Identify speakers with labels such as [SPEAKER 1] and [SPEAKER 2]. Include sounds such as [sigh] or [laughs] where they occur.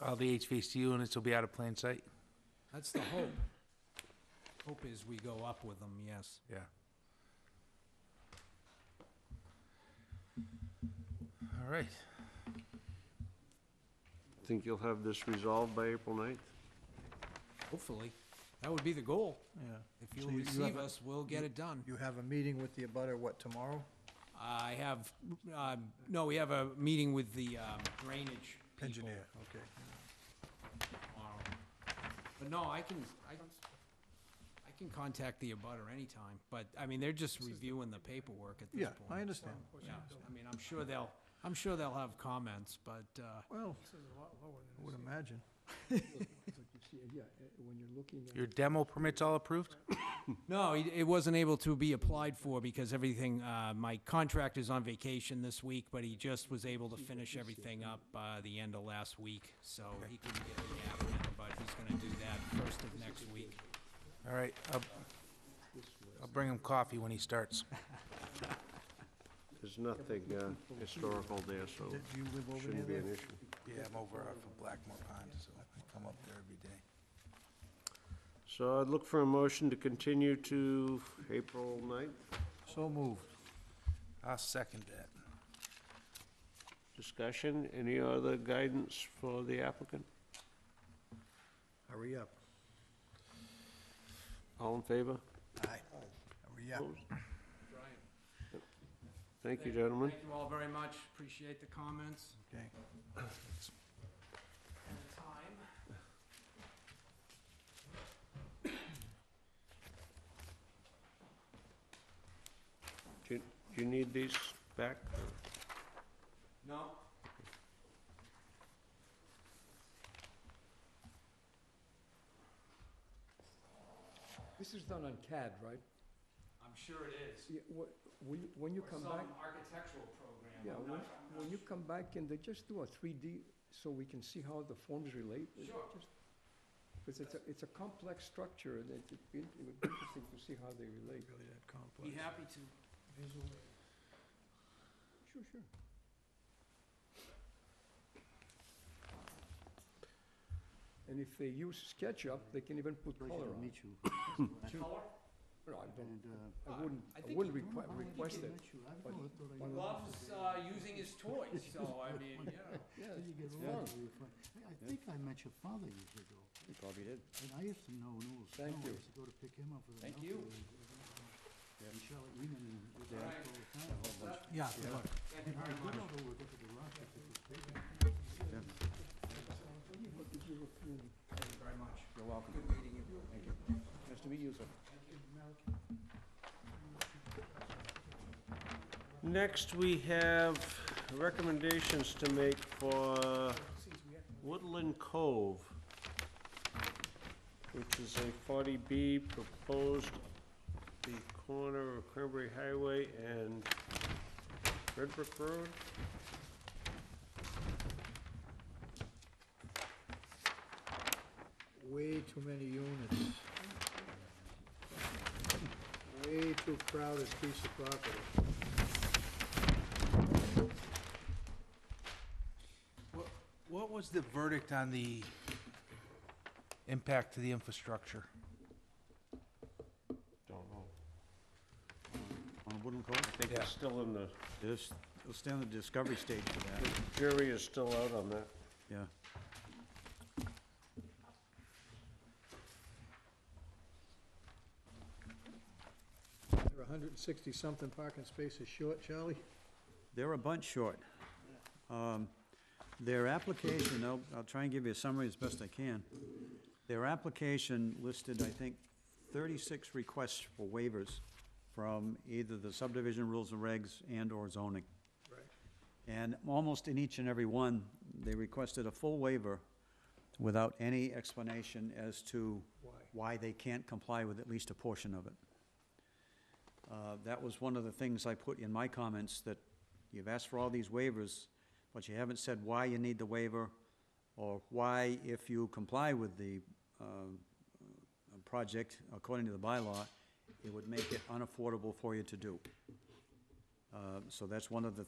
[SPEAKER 1] all the HVAC units will be out of plain sight?
[SPEAKER 2] That's the hope. Hope is we go up with them, yes.
[SPEAKER 1] Yeah. All right.
[SPEAKER 3] Think you'll have this resolved by April 9th?
[SPEAKER 2] Hopefully. That would be the goal.
[SPEAKER 4] Yeah.
[SPEAKER 2] If
[SPEAKER 4] So
[SPEAKER 2] you'll
[SPEAKER 4] you- you have
[SPEAKER 2] receive
[SPEAKER 4] a-
[SPEAKER 2] us, we'll get it done.
[SPEAKER 4] You have a meeting with the abutter, what, tomorrow?
[SPEAKER 2] I have, um, no, we have a meeting with the um, drainage people
[SPEAKER 4] Engineer, okay.
[SPEAKER 2] tomorrow. But no, I can, I, I can contact the abutter anytime, but, I mean, they're just reviewing the paperwork at this
[SPEAKER 4] Yeah,
[SPEAKER 2] point.
[SPEAKER 4] I understand.
[SPEAKER 2] Yeah, I mean, I'm sure they'll, I'm sure they'll have comments, but, uh,
[SPEAKER 4] Well, I would imagine.
[SPEAKER 1] Your demo permit's all approved?
[SPEAKER 2] No, it it wasn't able to be applied for because everything, uh, my contractor's on vacation this week, but he just was able to finish everything up uh, the end of last week, so he can get the app now, but he's gonna do that first of next week.
[SPEAKER 1] All right, I'll, I'll bring him coffee when he starts.
[SPEAKER 3] There's nothing uh, historical there, so
[SPEAKER 4] Do you live over near
[SPEAKER 3] shouldn't be
[SPEAKER 4] there?
[SPEAKER 3] an issue.
[SPEAKER 1] Yeah, I'm over off of Blackmore Pond, so I come up there every day.
[SPEAKER 3] So I'd look for a motion to continue to April 9th.
[SPEAKER 4] So moved.
[SPEAKER 1] I'll second that.
[SPEAKER 3] Discussion, any other guidance for the applicant?
[SPEAKER 4] Hurry up.
[SPEAKER 3] All in favor?
[SPEAKER 4] Aye. Hurry up.
[SPEAKER 3] Opposed?
[SPEAKER 2] Brian,
[SPEAKER 3] Thank you, gentlemen.
[SPEAKER 2] Thank you all very much, appreciate the comments
[SPEAKER 4] Okay.
[SPEAKER 2] and the time.
[SPEAKER 3] Do you- do you need these back?
[SPEAKER 2] No?
[SPEAKER 5] This is done on CAD, right?
[SPEAKER 2] I'm sure it is.
[SPEAKER 5] Yeah, wh- When you- when you
[SPEAKER 2] Or
[SPEAKER 5] come back,
[SPEAKER 2] Some architectural program,
[SPEAKER 5] yeah,
[SPEAKER 2] I'm
[SPEAKER 5] when
[SPEAKER 2] not- I'm not
[SPEAKER 5] when you come back, can they just do a 3D so we can see how the forms relate?
[SPEAKER 2] Sure.
[SPEAKER 5] Because it's a, it's a complex structure, and it- it'd be- it would be interesting to see how they relate.
[SPEAKER 4] Really that
[SPEAKER 2] sure. Be
[SPEAKER 4] complex.
[SPEAKER 2] happy to.
[SPEAKER 5] Sure, sure. And if they use SketchUp, they can even put color on it.
[SPEAKER 6] you.
[SPEAKER 2] Color?
[SPEAKER 5] No, I don't,
[SPEAKER 2] uh,
[SPEAKER 5] I wouldn't,
[SPEAKER 2] I
[SPEAKER 5] I
[SPEAKER 2] think
[SPEAKER 5] wouldn't
[SPEAKER 2] you-
[SPEAKER 5] requi- request it. but-
[SPEAKER 2] Loves uh, using his toys, so I
[SPEAKER 5] [laughs]
[SPEAKER 2] mean, you know.
[SPEAKER 6] I
[SPEAKER 5] Yeah, yeah,
[SPEAKER 6] I think I met your father years ago,
[SPEAKER 5] you probably did.
[SPEAKER 6] and I used to know Newell Stone.
[SPEAKER 5] Thank
[SPEAKER 6] I
[SPEAKER 5] you.
[SPEAKER 6] used to go to pick him up with a
[SPEAKER 2] Thank
[SPEAKER 6] milk
[SPEAKER 2] you.
[SPEAKER 6] and- uh, and- And Charlotte Weenan and we
[SPEAKER 2] Yeah.
[SPEAKER 6] talked all the time.
[SPEAKER 4] Yeah, look,
[SPEAKER 6] I
[SPEAKER 2] Thank you very
[SPEAKER 6] don't
[SPEAKER 2] much.
[SPEAKER 6] know who would look at the rock if it was bigger.
[SPEAKER 2] Thank you very much.
[SPEAKER 5] You're welcome.
[SPEAKER 2] Good meeting you.
[SPEAKER 5] Nice to meet you, sir.
[SPEAKER 3] Next, we have recommendations to make for Woodland Cove, which is a 40B proposed the corner of Cranberry Highway and Red Brick Road.
[SPEAKER 4] way too many units. Way too crowded piece of property.
[SPEAKER 1] What was the verdict on the impact to the infrastructure?
[SPEAKER 3] Don't know.
[SPEAKER 7] On Woodland Cove?
[SPEAKER 3] I think
[SPEAKER 1] Yeah.
[SPEAKER 3] it's still in the,
[SPEAKER 7] Yes, it'll stay on the discovery stage for that,
[SPEAKER 3] the jury is still out on that.
[SPEAKER 7] yeah.
[SPEAKER 4] There are hundred and sixty-something parking spaces short, Charlie?
[SPEAKER 7] They're a bunch short. Um, Their application, I'll, I'll try and give you a summary as best I can. Their application listed, I think, thirty-six requests for waivers from either the subdivision rules and regs and/or zoning. And almost in each and every one, they requested a full waiver without any explanation as to why they can't comply with at least a portion of it. Uh, That was one of the things I put in my comments, that you've asked for all these waivers, but you haven't said why you need the waiver, or why, if you comply with the uh, uh, project according to the bylaw, it would make it unaffordable for you to do. Uh, So that's one of the